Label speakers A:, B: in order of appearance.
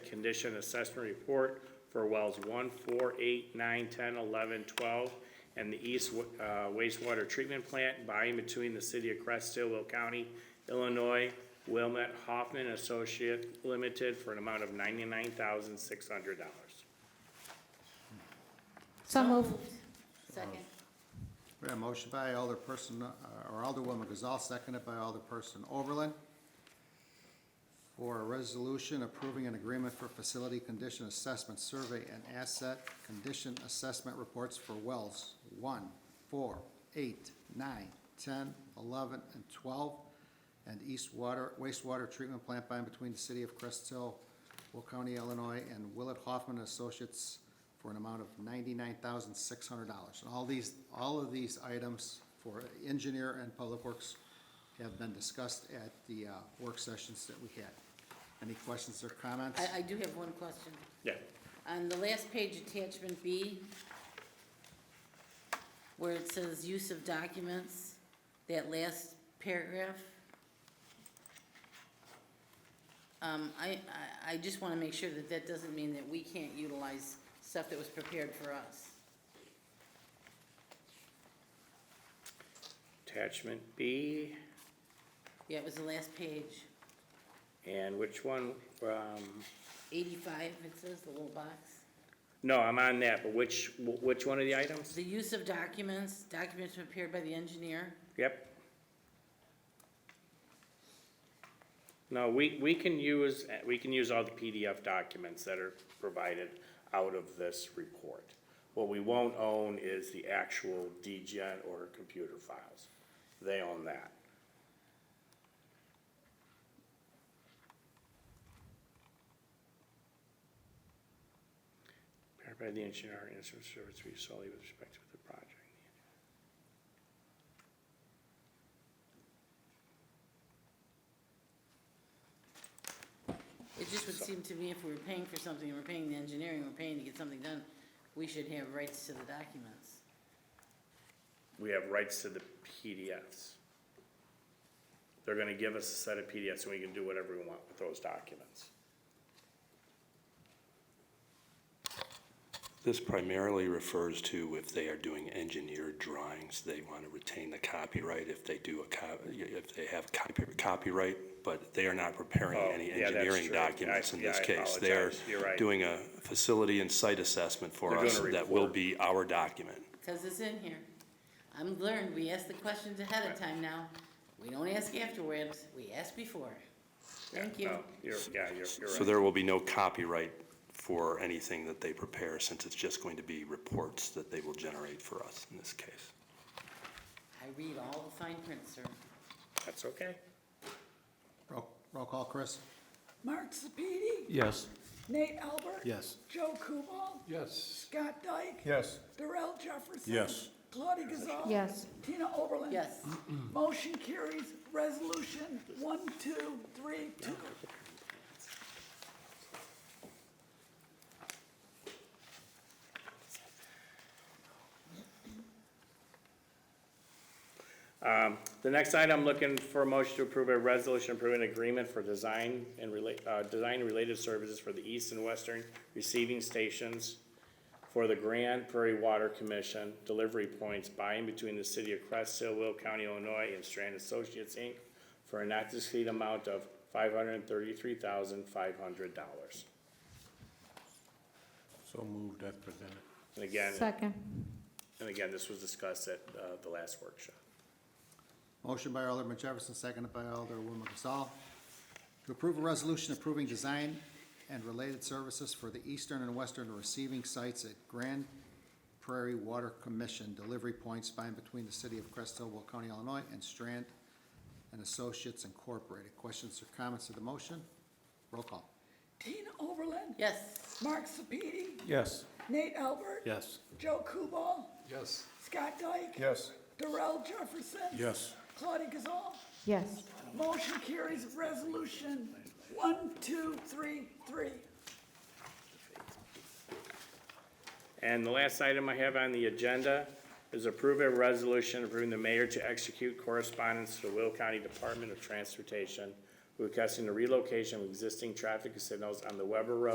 A: condition assessment report for wells one, four, eight, nine, ten, eleven, twelve, and the east wa- uh, wastewater treatment plant by and between the city of Crest Hill, Will County, Illinois, Wilmet Hoffman Associate Limited for an amount of ninety-nine thousand, six hundred dollars.
B: So moved.
C: Second.
D: We have a motion by Alderperson, uh, or Alderwoman Gazal, seconded by Alderperson Oberlin, for a resolution approving an agreement for facility condition assessment survey and asset condition assessment reports for wells one, four, eight, nine, ten, eleven, and twelve, and east water, wastewater treatment plant by and between the city of Crest Hill, Will County, Illinois, and Willett Hoffman Associates for an amount of ninety-nine thousand six hundred dollars. And all these, all of these items for engineer and public works have been discussed at the uh, work sessions that we had. Any questions or comments?
C: Oh. I, I do have one question.
A: Yeah,
C: On the last page, attachment B, where it says use of documents, that last paragraph. Um, I, I, I just wanna make sure that that doesn't mean that we can't utilize stuff that was prepared for us.
A: attachment B,
C: Yeah, it was the last page,
A: and which one, um,
C: eighty-five, it says, the little box.
A: no, I'm on that, but which, which one of the items?
C: The use of documents, documents prepared by the engineer.
A: Yep. No, we, we can use, we can use all the PDF documents that are provided out of this report. What we won't own is the actual DGen or computer files. They own that. Prepared by the engineer, instrument service, to be solely with respect to the project.
C: It just would seem to me if we were paying for something, and we're paying the engineering, we're paying to get something done, we should have rights to the documents.
A: we have rights to the PDFs. They're gonna give us a set of PDFs, and we can do whatever we want with those documents.
E: This primarily refers to if they are doing engineered drawings, they want to retain the copyright if they do a co- if they have copy- copyright, but they are not preparing
A: Oh,
E: any
A: yeah, that's
E: engineering
A: true. I-
E: documents in
A: yeah,
E: this
A: I
E: case. They're
A: apologize. You're right.
E: doing a facility and site assessment for
A: They're
E: us
A: doing a
E: that will
A: report.
E: be our document.
C: Cause it's in here. I'm learned, we ask the questions ahead of time now, we don't ask afterwards, we ask before. Thank you.
A: No, You're, yeah, you're, you're
E: So
A: right.
E: there will be no copyright for anything that they prepare, since it's just going to be reports that they will generate for us in this case.
C: I read all the fine print, sir.
A: That's okay.
D: Roll roll call, Chris?
F: Mark Sepiti,
G: Yes.
F: Nate Albert.
G: Yes.
F: Joe Kubal,
G: Yes.
F: Scott Dyke.
G: Yes.
F: Darrell Jefferson.
G: Yes.
F: Claudia Gazal.
B: Yes.
F: Tina Oberlin.
C: Yes,
F: Motion carries, resolution one, two, three, two.
A: The next item, I'm looking for a motion to approve a resolution approving agreement for design and relate, uh, design related services for the east and western receiving stations for the Grand Prairie Water Commission delivery points by and between the city of Crest Hill, Will County, Illinois, and Strand Associates, Inc. for a not to exceed amount of five hundred and thirty-three thousand, five hundred dollars.
G: So moved as presented.
A: And again,
B: Second.
A: and again, this was discussed at, uh, the last workshop.
D: Motion by Alderman Jefferson, seconded by Alderwoman Gazal, to approve a resolution approving design and related services for the eastern and western receiving sites at Grand Prairie Water Commission delivery points by and between the city of Crest Hill, Will County, Illinois, and Strand and Associates Incorporated. Questions or comments of the motion? Roll call.
F: Tina Oberlin.
C: yes,
F: Mark Sepiti,
G: Yes.
F: Nate Albert.
G: Yes.
F: Joe Kubal,
G: Yes.
F: Scott Dyke.
G: Yes.
F: Darrell Jefferson.
G: Yes.
F: Claudia Gazal.
B: Yes.
F: Motion carries, resolution one, two, three, three.
A: And the last item I have on the agenda is approve a resolution approving the mayor to execute correspondence to the Will County Department of Transportation requesting the relocation of existing traffic signals on the Weber Road